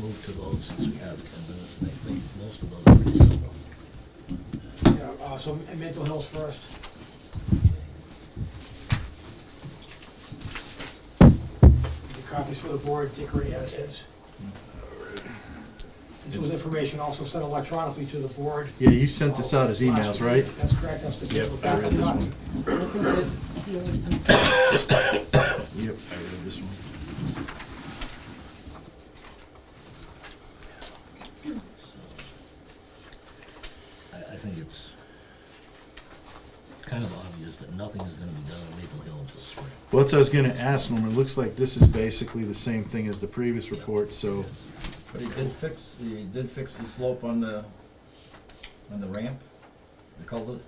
move to those since we have ten minutes, and I think most of those are pretty simple. Yeah, uh, so m- mental health first. The copies for the board, Dick already has his. This was information also sent electronically to the board. Yeah, you sent this out as emails, right? That's correct, that's the. Yep, I read this one. Yep, I read this one. I, I think it's kind of obvious that nothing is gonna be done in Maple Hill until spring. Well, that's what I was gonna ask, Norman, it looks like this is basically the same thing as the previous report, so, But he did fix, he did fix the slope on the, on the ramp, the culvert.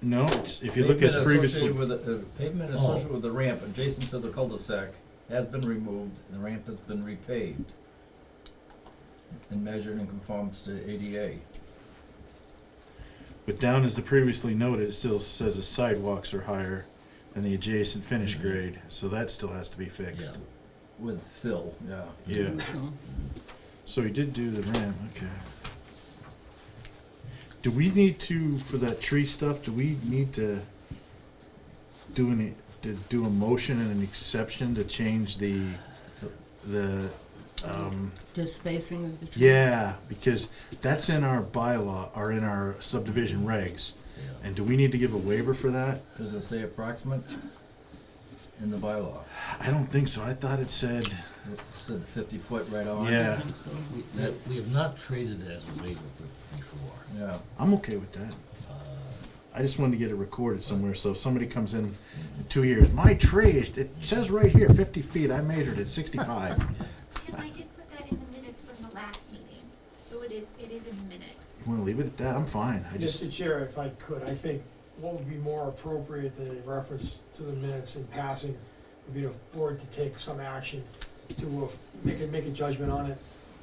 no, it's, if you look as Pavement previously. associated with the- uh, Oh. Pavement associated with the ramp adjacent to the cul-de-sac has been removed, and the ramp has been repaved and measured and conforms to ADA. But down as the previously noted, it still says the sidewalks are higher than the adjacent finish Mhm. grade, so that still has to be fixed. Yeah. With fill, yeah. Yeah. So he did do the ramp, okay. Do we need to, for that tree stuff, do we need to do any, to do a motion and an exception to change the, So- the, um, Just spacing of the trees. yeah, because that's in our bylaw, or in our subdivision regs. Yeah. And do we need to give a waiver for that? Does it say approximate in the bylaw? I don't think so. I thought it said, It said fifty foot right on. I yeah, think so. We, we- we have not traded it as a waiver be- before. Yeah, I'm okay with that. Uh, I just wanted to get it recorded somewhere, so if somebody comes in in two years, my tree, is- it says right here, fifty feet, I measured it, sixty-five. And I did put that in the minutes from the last meeting, so it is, it is in the minutes. Wanna leave it at that? I'm fine. I just, Mr. Chair, if I could, I think what would be more appropriate than a reference to the minutes in passing would be the board to take some action to uh, make a, make a judgment on it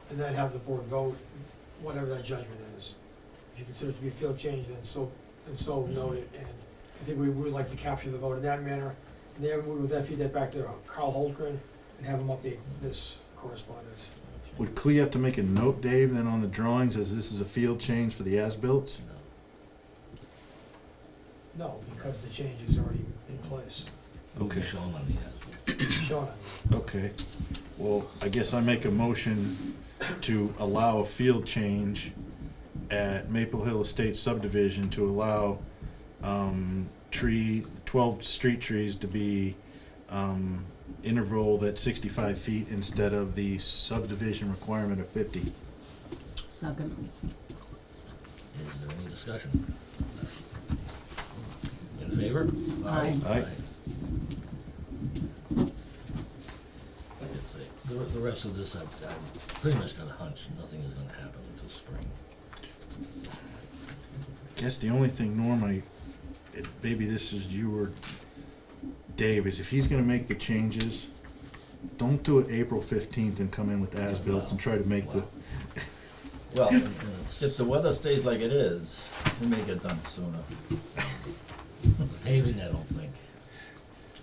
and then have the board vote, whatever that judgment is. If you consider it to be a field change, then so, and so note it. And I think we would like to capture the vote in that manner. And then we would then feed that back to uh, Carl Holgren and have him update this correspondence. would Clea have to make a note, Dave, then on the drawings, as this is a field change for the as-built? you know, No, because the change is already in place. it will be Okay. shown on the as. Shona, Okay, well, I guess I make a motion to allow a field change at Maple Hill Estates subdivision to allow, um, tree, twelve street trees to be, um, intervaled at sixty-five feet instead of the subdivision requirement of fifty. Second. Is there any discussion? In favor? Aye. Aye. It's a- The, the rest of this, I've, I've pretty much got a hunch, nothing is gonna happen until spring. Guess the only thing, Norm, I, it- maybe this is you or Dave, is if he's gonna make the changes, don't do it April fifteenth and come in with as-bills and try to make the, Wow. well, And it's- if the weather stays like it is, we may get done sooner. The paving, I don't think,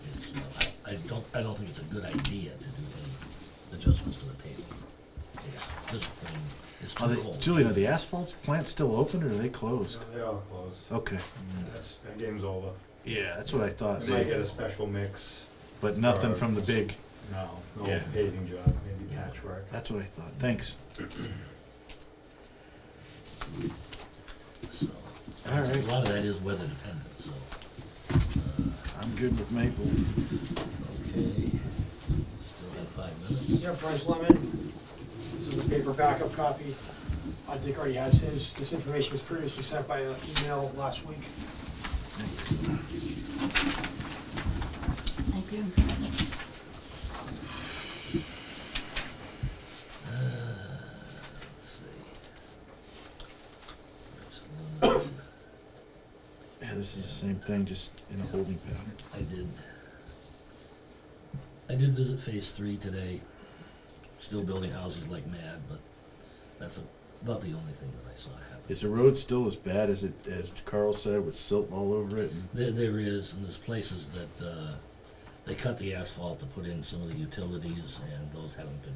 is, uh, I, I don't, I don't think it's a good idea to do any adjustments to the paving. It's just plain, it's Are too they, cold. Julian, are the asphalt plants still open or are they closed? No, They all closed. Okay. That's, that game's over. Yeah, that's what I thought. They might They- get a special mix. But nothing from the big, No, no Yeah. paving job, maybe patchwork. that's what I thought. Thanks. So, All A right. lot of that is weather dependent, so, I'm good with Maple. okay, still have five minutes. yeah, Bryce Lemon, this is a paper backup copy. Uh, Dick already has his, this information was previously sent by uh, email last week. Thank you. Let's see. There's one Yeah, this is the same thing, just in a holding pattern. I did. I did visit phase three today, still building houses like mad, but that's about the only thing that I saw happen. Is the road still as bad as it, as Carl said, with silt all over it? and- There, there is, and there's places that, uh, they cut the asphalt to put in some of the utilities, and those haven't been